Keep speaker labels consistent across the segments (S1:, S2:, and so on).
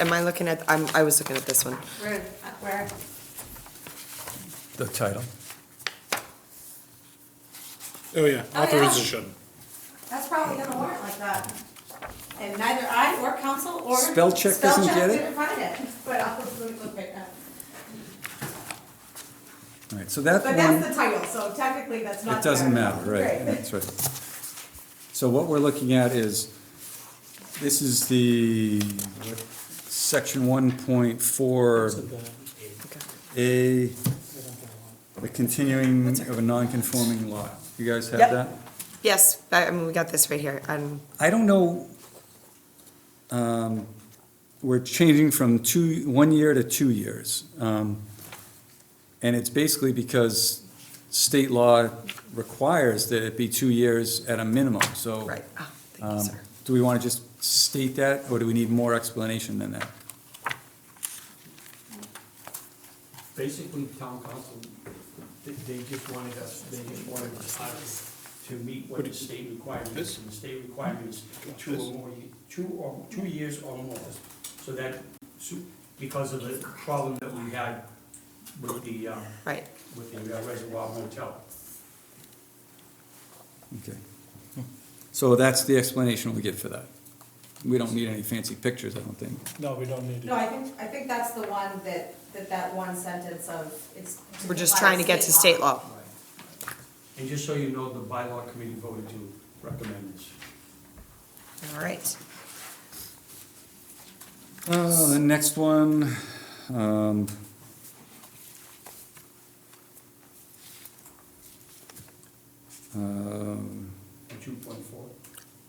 S1: Am I looking at, I'm, I was looking at this one.
S2: Where, where?
S3: The title.
S2: Oh,
S4: Oh, yeah,
S2: yeah.
S4: authorization.
S2: That's probably gonna warrant like that. And neither I or council or.
S3: Spell check doesn't
S2: Spell check
S3: get it?
S2: didn't find it, but I'll look look right now.
S3: All right, so that
S2: But
S3: one,
S2: that's the title, so technically that's not.
S3: it doesn't
S2: there.
S3: matter, right, that's right. So what we're looking at is, this is the, what, section one point four
S1: Okay.
S3: A, the continuing of a non-conforming lot. You guys have
S1: Yep.
S3: that?
S1: Yes, I, I mean, we got this right here. Um,
S3: I don't know, um, we're changing from two, one year to two years. Um, And it's basically because state law requires that it be two years at a minimum, so.
S1: right, oh, thank you,
S3: um,
S1: sir.
S3: Do we want to just state that, or do we need more explanation than that?
S5: basically town council, they, they just wanted us, they just wanted us to meet what the state requirement is, and the state requirement is two or more, ye- two or, two years or more. So that, so- because of the problem that we had with the, uh,
S1: Right,
S5: with the uh, reservoir motel.
S3: Okay. So that's the explanation we get for that. We don't need any fancy pictures, I don't think.
S4: No, we don't need
S2: No, I think, I think that's the one that, that that one sentence of, it's.
S1: we're just trying to get to state law.
S5: And just so you know, the bylaw committee voted to recommend this.
S1: All right.
S3: Uh, the next one, um. um,
S5: Two point four.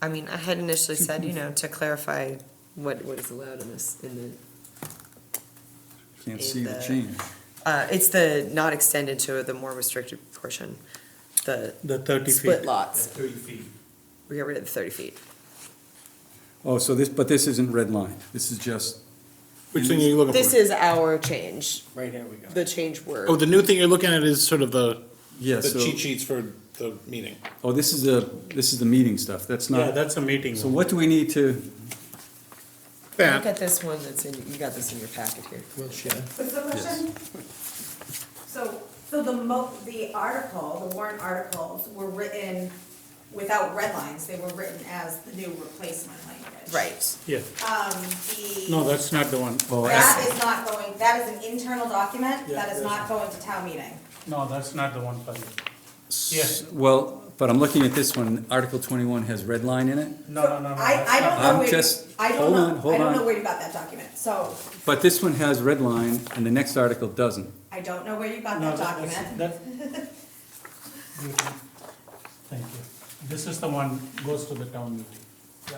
S1: I mean, I had initially said, you know, to clarify what, what is allowed in this, in
S3: Can't see the
S1: The-
S3: change.
S1: the, uh, it's the not extended to the more restricted portion, the
S4: The thirty
S1: split
S4: feet.
S5: At
S1: lots.
S5: thirty feet.
S1: We got rid of the thirty feet.
S3: Oh, so this, but this isn't red line, this is just,
S4: Which thing are you looking
S1: This
S4: for?
S1: is our change,
S5: Right, here we go.
S1: the change
S4: Oh,
S1: word.
S4: the new thing you're looking at is sort of the,
S3: yeah,
S4: the cheat
S3: so,
S4: sheets for the meeting.
S3: oh, this is the, this is the meeting stuff, that's not,
S4: that's a meeting.
S3: so what do we need to,
S1: Look
S4: That,
S1: at this one that's in, you got this in your packet here.
S2: What's the question? So, so the mo, the article, the warrant articles were written without red lines, they were written as the new replacement language.
S1: Right,
S4: yeah,
S2: Um, the.
S4: no, that's not the one.
S3: oh,
S2: That
S3: I-
S2: is not going, that is an internal document,
S4: Yeah,
S2: that is
S4: that's-
S2: not going to town meeting.
S4: No, that's not the one for you.
S3: s- well, but I'm looking at this one, Article twenty-one has red line in it,
S4: No, no, no, no.
S2: I, I don't
S3: I'm
S2: know where,
S3: just-
S2: I don't
S3: hold on,
S2: know,
S3: hold
S2: I don't
S3: on.
S2: know where you got that document, so
S3: but this one has red line, and the next article doesn't.
S2: I don't know where you got that document.
S6: Thank you. This is the one goes to the town meeting. Yeah.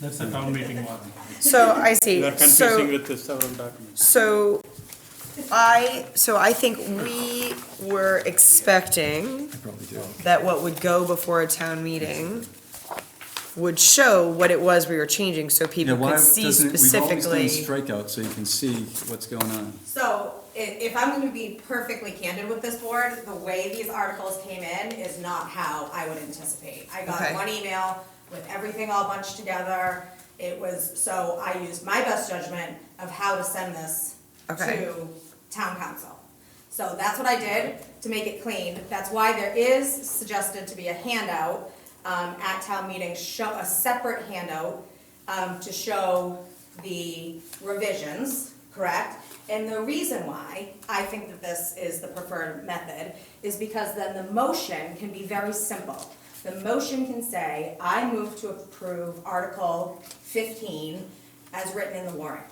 S6: That's the town meeting one.
S1: so I see,
S4: You're
S1: so.
S4: confusing with the several documents.
S1: So I, so I think we were expecting
S3: I probably do.
S1: that what would go before a town meeting would show what it was we were changing, so
S3: Yeah,
S1: people
S3: why
S1: could see
S3: doesn't, it- we've always done
S1: specifically.
S3: strikeout, so you can see what's going on.
S2: So, i- if I'm gonna be perfectly candid with this board, the way these articles came in is not how I would anticipate. I got
S1: Okay.
S2: one email with everything all bunched together, it was, so I used my best judgment of how to send this
S1: Okay.
S2: to town council. So that's what I did to make it clean, that's why there is suggested to be a handout, um, at town meeting, show, a separate handout, um, to show the revisions, correct? And the reason why I think that this is the preferred method is because then the motion can be very simple. The motion can say, I move to approve Article fifteen as written in the warrant.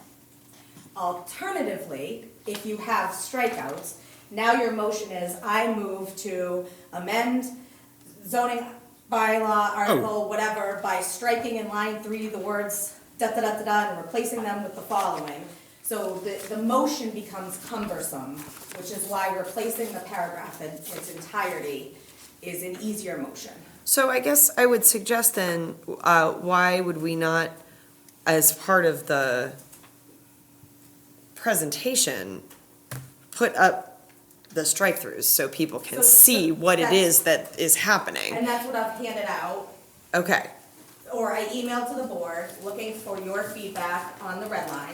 S2: Alternatively, if you have strikeouts, now your motion is, I move to amend zoning bylaw article, whatever, by striking in line three the words da-da-da-da-da and replacing them with the following. So the, the motion becomes cumbersome, which is why replacing the paragraph in its entirety is an easier motion.
S1: So I guess I would suggest then, uh, why would we not, as part of the presentation, put up the strike-throughs so people can
S2: So- so
S1: see what it
S2: that's-
S1: is that is happening?
S2: And that's what I've handed out
S1: Okay,
S2: or I emailed to the board looking for your feedback on the red line.